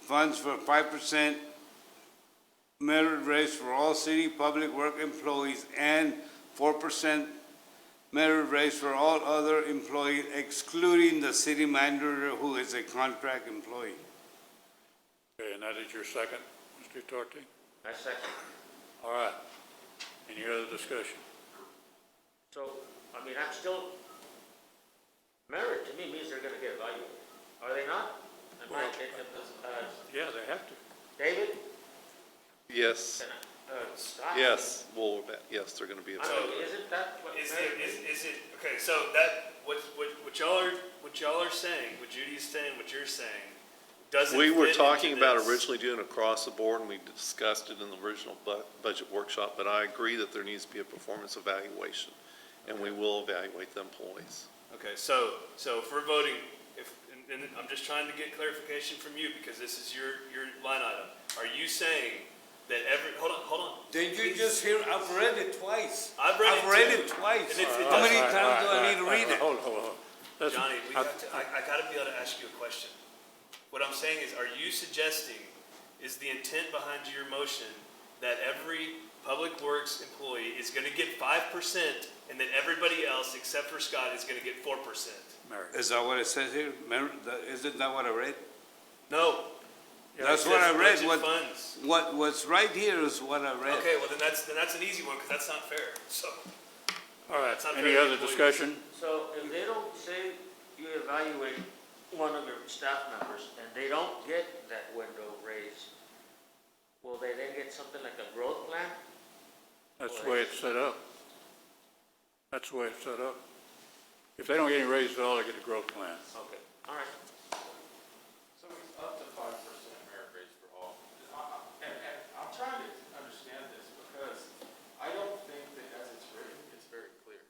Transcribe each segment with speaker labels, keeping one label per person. Speaker 1: funds for five percent merit raise for all city public work employees and four percent merit raise for all other employees excluding the city manager who is a contract employee.
Speaker 2: Okay, and that is your second, Mr. Torti?
Speaker 3: I second.
Speaker 2: All right. Any other discussion?
Speaker 3: So, I mean, I'm still, merit to me means they're gonna get evaluated, are they not? Am I,
Speaker 2: Well-
Speaker 3: uh,
Speaker 2: Yeah, they have to.
Speaker 3: David?
Speaker 4: Yes,
Speaker 3: Uh, Scott?
Speaker 4: yes, well, that- yes, they're gonna be
Speaker 3: I
Speaker 4: evaluated.
Speaker 3: mean, isn't that what
Speaker 5: Is
Speaker 3: merit
Speaker 5: it, is, is it, okay, so that, what, what, what y'all are, what y'all are saying, what Judy's saying, what you're saying, doesn't
Speaker 4: We
Speaker 5: fit
Speaker 4: were
Speaker 5: into
Speaker 4: talking about
Speaker 5: this.
Speaker 4: originally doing across the board, and we discussed it in the original bu- budget workshop, but I agree that there needs to be a performance evaluation, and we will evaluate the employees.
Speaker 5: Okay, so, so if we're voting, if, and, and I'm just trying to get clarification from you, because this is your, your line item. Are you saying that every, hold on, hold on,
Speaker 1: Did you just hear, I've read it twice.
Speaker 5: I've read it too.
Speaker 1: twice.
Speaker 5: And it's- it
Speaker 1: How many
Speaker 2: All right,
Speaker 1: times do
Speaker 2: all right,
Speaker 1: I need to
Speaker 2: all right,
Speaker 1: read it?
Speaker 2: Hold, hold, hold. That's-
Speaker 5: Johnny, we
Speaker 2: I-
Speaker 5: have to, I, I gotta be able to ask you a question. What I'm saying is, are you suggesting, is the intent behind your motion that every public works employee is gonna get five percent and that everybody else except for Scott is gonna get four percent?
Speaker 2: Merit.
Speaker 1: Is that what it says here? Mer- the- Isn't that what I read?
Speaker 5: No.
Speaker 1: That's
Speaker 5: It
Speaker 1: what I
Speaker 5: says
Speaker 1: read,
Speaker 5: budget
Speaker 1: what,
Speaker 5: Funds.
Speaker 1: what, what's right here is what I read.
Speaker 5: Okay, well, then that's, then that's an easy one, cause that's not fair, so.
Speaker 2: All right,
Speaker 5: It's not
Speaker 2: any
Speaker 5: very
Speaker 2: other
Speaker 5: employee.
Speaker 2: discussion?
Speaker 3: So if they don't say you evaluate one of your staff members and they don't get that window raise, will they then get something like a growth plan?
Speaker 2: That's the way it's set up. That's the way it's set up. If they don't get any raises at all, they get a growth plan.
Speaker 3: Okay. All right.
Speaker 6: So it's up to five percent merit raise for all. I- I- And, and I'm trying to understand this because I don't think that as it's written, it's very clear.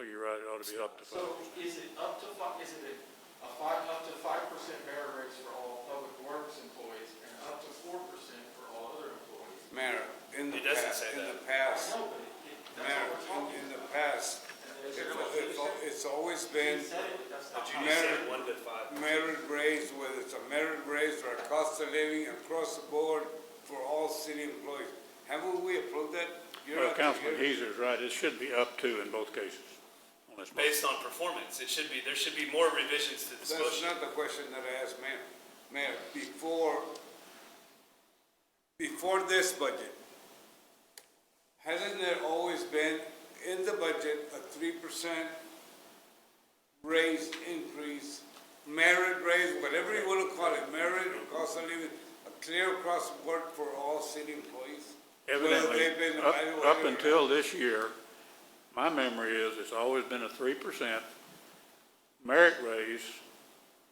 Speaker 2: So you're right, it ought to be up to five.
Speaker 6: So is it up to fi, is it a five, up to five percent merit raise for all public works employees and up to four percent for all other employees?
Speaker 1: Mayor, in the
Speaker 5: It
Speaker 1: past,
Speaker 5: doesn't say
Speaker 1: in
Speaker 5: that.
Speaker 1: the past,
Speaker 6: No, but it, it- that's
Speaker 1: Mayor,
Speaker 6: what we're
Speaker 1: in-
Speaker 6: talking
Speaker 1: in the
Speaker 6: about.
Speaker 1: past, it's, it's al- it's always been
Speaker 6: You said it, that's not
Speaker 5: But
Speaker 6: how
Speaker 5: you just
Speaker 1: Merit.
Speaker 5: said one to five.
Speaker 1: merit raise, whether it's a merit raise or a cost of living across the board for all city employees. Haven't we approved that? You're
Speaker 2: Well,
Speaker 1: not gonna
Speaker 2: Councilman
Speaker 1: hear it.
Speaker 2: Heiser is right, it should be up to in both cases. on this motion.
Speaker 5: Based on performance, it should be, there should be more revisions to this
Speaker 1: That's
Speaker 5: motion.
Speaker 1: not the question that I asked, Mayor. Mayor, before, before this budget, hasn't there always been in the budget a three percent raise increase, merit raise, whatever you want to call it, merit or cost of living, a clear across the board for all city employees? Whether they've been
Speaker 2: Evidently, up,
Speaker 1: evaluated
Speaker 2: up
Speaker 1: or not.
Speaker 2: until this year, my memory is it's always been a three percent merit raise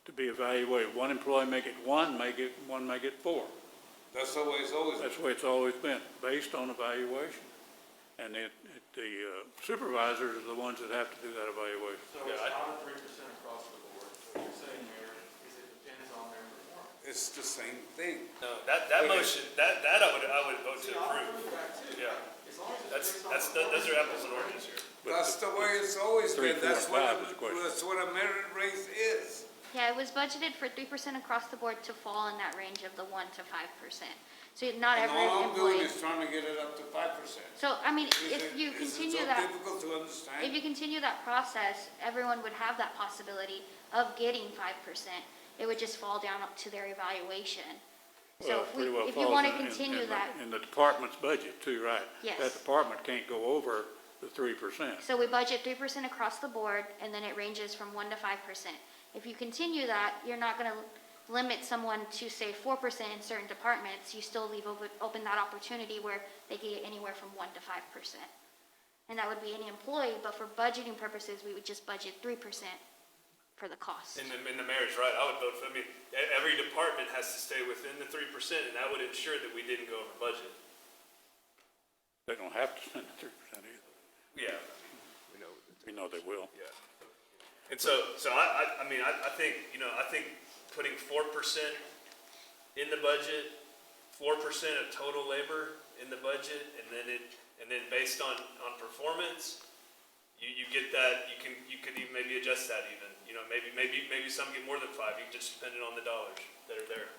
Speaker 2: to be evaluated. One employee may get one, may get, one may get four.
Speaker 1: That's the way it's always been.
Speaker 2: That's the way it's always been, based on evaluation. And it, it- the uh, supervisors are the ones that have to do that evaluation.
Speaker 6: So it's not a three percent across the board. What you're saying, Mayor, is it depends on their performance.
Speaker 1: It's the same thing.
Speaker 5: No, that, that motion, that, that I would, I would vote to
Speaker 6: See, I'll
Speaker 5: approve.
Speaker 6: approve that too.
Speaker 5: Yeah.
Speaker 6: As long as it's
Speaker 5: That's,
Speaker 6: based on
Speaker 5: that's, tho- those are apples and oranges here.
Speaker 1: That's the way it's always
Speaker 2: Three,
Speaker 1: been.
Speaker 2: four,
Speaker 1: That's what, a-
Speaker 2: five is the question.
Speaker 1: that's what a merit raise is.
Speaker 7: Yeah, it was budgeted for three percent across the board to fall in that range of the one to five percent. So not
Speaker 1: And
Speaker 7: every
Speaker 1: all I'm doing
Speaker 7: employee.
Speaker 1: is trying to get it up to five percent.
Speaker 7: So, I mean, if you continue
Speaker 1: Is
Speaker 7: that,
Speaker 1: it so difficult to
Speaker 7: if
Speaker 1: understand?
Speaker 7: you continue that process, everyone would have that possibility of getting five percent. It would just fall down up to their evaluation.
Speaker 2: Well,
Speaker 7: So
Speaker 2: it
Speaker 7: if
Speaker 2: pretty
Speaker 7: we,
Speaker 2: well
Speaker 7: if you
Speaker 2: falls
Speaker 7: want to
Speaker 2: in- in- in
Speaker 7: continue
Speaker 2: the-
Speaker 7: that,
Speaker 2: In the department's budget too, right?
Speaker 7: Yes.
Speaker 2: That department can't go over the three percent.
Speaker 7: so we budget three percent across the board, and then it ranges from one to five percent. If you continue that, you're not gonna limit someone to say four percent in certain departments, you still leave open, open that opportunity where they could get anywhere from one to five percent. And that would be any employee, but for budgeting purposes, we would just budget three percent for the cost.
Speaker 5: And the, and the mayor's right, I would vote for, I mean, e- every department has to stay within the three percent, and that would ensure that we didn't go over budget.
Speaker 2: They don't have to spend the three percent either.
Speaker 5: Yeah.
Speaker 2: We know they will.
Speaker 5: And so, so I, I, I mean, I, I think, you know, I think putting four percent in the budget, four percent of total labor in the budget, and then it, and then based on, on performance, you, you get that, you can, you could even maybe adjust that even, you know, maybe, maybe, maybe some get more than five, you just depending on the dollars that are there.